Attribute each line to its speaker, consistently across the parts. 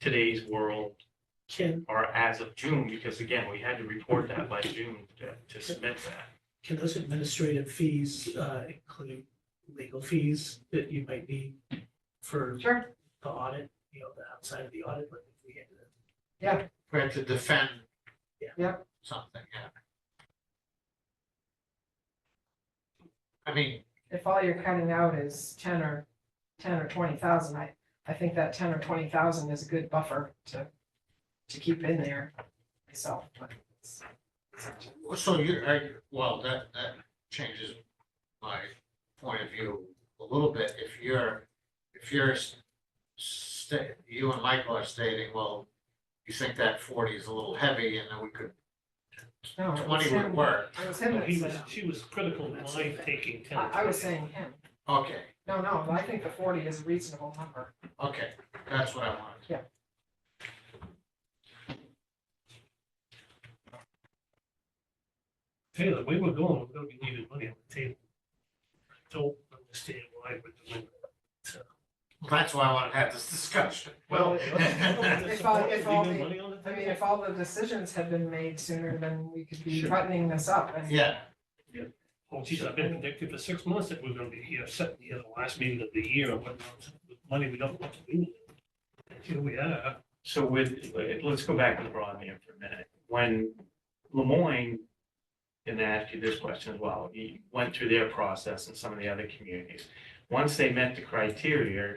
Speaker 1: today's world
Speaker 2: Can,
Speaker 1: or as of June, because again, we had to report that by June to- to submit that.
Speaker 2: can those administrative fees uh, include legal fees that you might need for
Speaker 3: Sure.
Speaker 2: the audit, you know, the outside of the audit, but if we had to
Speaker 4: we had to defend.
Speaker 2: Yeah.
Speaker 3: Yeah.
Speaker 4: Something, yeah. I mean,
Speaker 3: If all you're cutting out is ten or, ten or twenty thousand, I, I think that ten or twenty thousand is a good buffer to, to keep in there myself, but. it's-
Speaker 4: so you, are you- well, that, that changes my point of view a little bit. If you're, if you're s- sta- you and Michael are stating, well, you think that forty is a little heavy and then we could,
Speaker 3: No, it was
Speaker 4: twenty would
Speaker 3: him,
Speaker 4: work.
Speaker 3: it was him
Speaker 5: Well,
Speaker 3: that
Speaker 5: He was,
Speaker 3: said-
Speaker 5: she was critical of mine taking ten.
Speaker 3: I, I was saying him.
Speaker 4: Okay,
Speaker 3: No, no, I think the forty is a reasonable number.
Speaker 4: okay, that's what I wanted.
Speaker 5: Hey, the way we're going, we're gonna be leaving money on the table. I Don't understand why we're doing
Speaker 4: That's why I wanted to have this discussion.
Speaker 3: Well,
Speaker 5: that.
Speaker 3: If I- if all
Speaker 5: Leaving
Speaker 3: the-
Speaker 5: money on the
Speaker 3: I mean,
Speaker 5: table?
Speaker 3: if all the decisions had been made sooner, then we could be
Speaker 5: Sure.
Speaker 3: buttoning this up and.
Speaker 4: Yeah,
Speaker 5: Oh, geez, I've been predicting for six months that we're gonna be here, set, you know, the last meeting of the year, what, money we don't want to do. And Here we are.
Speaker 1: So with, let's go back to the broadband for a minute. When Lemoyne, and I asked you this question as well, you went through their process and some of the other communities. Once they met the criteria,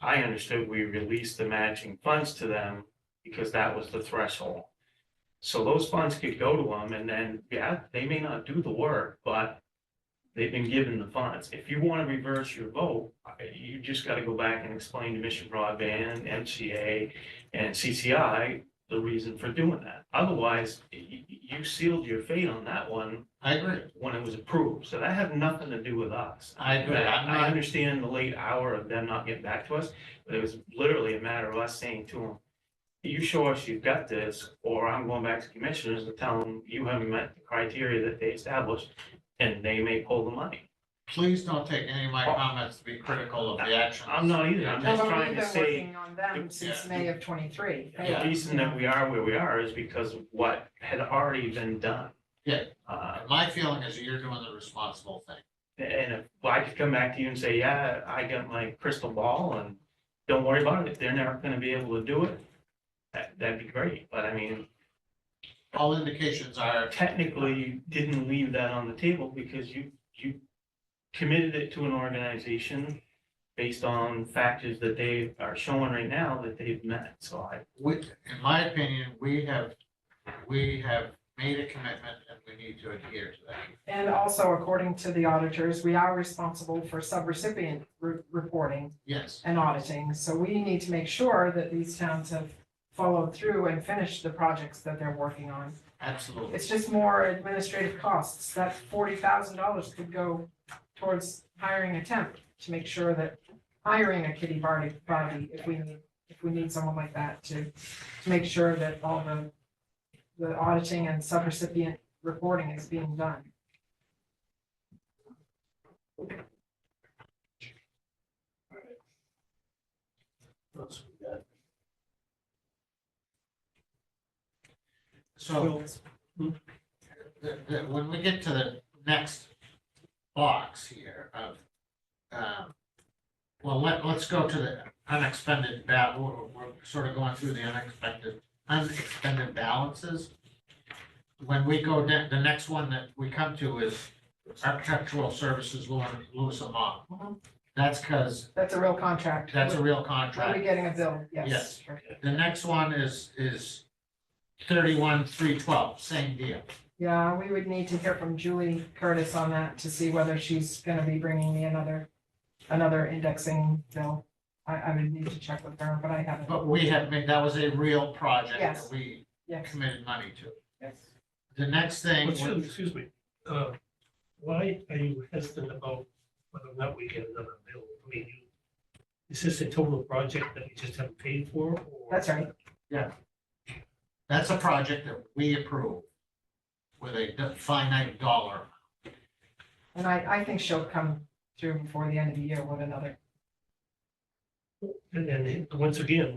Speaker 1: I understood we released the matching funds to them because that was the threshold. So those funds could go to them and then, yeah, they may not do the work, but they've been given the funds. If you want to reverse your vote, I- you just got to go back and explain to Mission Broadband, MCA, and CCI the reason for doing that. Otherwise, you, you sealed your fate on that one
Speaker 4: I agree.
Speaker 1: when it was approved. So that had nothing to do with us.
Speaker 4: I agree. I'm
Speaker 1: I
Speaker 4: not,
Speaker 1: understand the late hour of them not getting back to us, but it was literally a matter of us saying to them, you show us you've got this, or I'm going back to commissioners and tell them you haven't met the criteria that they established, and they may pull the money.
Speaker 4: please don't take any of my comments to be critical of the action.
Speaker 1: Oh. I'm not either. I'm
Speaker 3: No,
Speaker 1: just
Speaker 3: but
Speaker 1: trying
Speaker 3: we've
Speaker 1: to
Speaker 3: been
Speaker 1: say,
Speaker 3: working on them since
Speaker 4: Yeah.
Speaker 3: May of twenty-three.
Speaker 1: the reason that we are where we are is because of what had already been done.
Speaker 4: Yeah.
Speaker 1: Uh,
Speaker 4: My feeling is you're doing the responsible thing.
Speaker 1: And if I could come back to you and say, yeah, I got my crystal ball and don't worry about it, if they're never gonna be able to do it, that, that'd be great, but I mean,
Speaker 4: All indications are,
Speaker 1: technically, you didn't leave that on the table because you, you committed it to an organization based on factors that they are showing right now that they've met, so I,
Speaker 4: we, in my opinion, we have, we have made a commitment and we need to adhere to that.
Speaker 3: And also, according to the auditors, we are responsible for subrecipient re- reporting
Speaker 4: Yes,
Speaker 3: and auditing. So we need to make sure that these towns have followed through and finished the projects that they're working on.
Speaker 4: absolutely.
Speaker 3: It's just more administrative costs. That forty thousand dollars could go towards hiring a temp to make sure that hiring a kitty Barty, Bobby, if we need, if we need someone like that to, to make sure that all the, the auditing and subrecipient reporting is being done.
Speaker 2: Those we got.
Speaker 3: Oh,
Speaker 4: So the, the, when we get to the next box here of, um, well, let, let's go to the unexpended ba, we're, we're sort of going through the unexpected, unexpended balances. When we go, ne- the next one that we come to is architectural services, Lewis Lewis and Long.
Speaker 3: Mhm.
Speaker 4: That's because,
Speaker 3: That's a real contract.
Speaker 4: that's a real
Speaker 3: Are we
Speaker 4: contract.
Speaker 3: getting a bill? Yes.
Speaker 4: Yes. The next one is, is thirty-one, three twelve, same deal.
Speaker 3: Yeah, we would need to hear from Julie Curtis on that to see whether she's gonna be bringing me another, another indexing bill. I, I would need to check with her, but I haven't.
Speaker 4: But we have made, that was a real project
Speaker 3: Yes.
Speaker 4: that we
Speaker 3: Yes,
Speaker 4: committed money to.
Speaker 3: yes.
Speaker 4: The next thing,
Speaker 5: Excuse me,
Speaker 4: was-
Speaker 5: excuse me, uh, why are you hesitant about whether or not we get another bill? I mean, you, is this a total project that we just haven't paid for? or-
Speaker 3: That's right.
Speaker 4: that's a project that we approve with a finite dollar.
Speaker 3: And I, I think she'll come through before the end of the year with another
Speaker 5: And, and once again,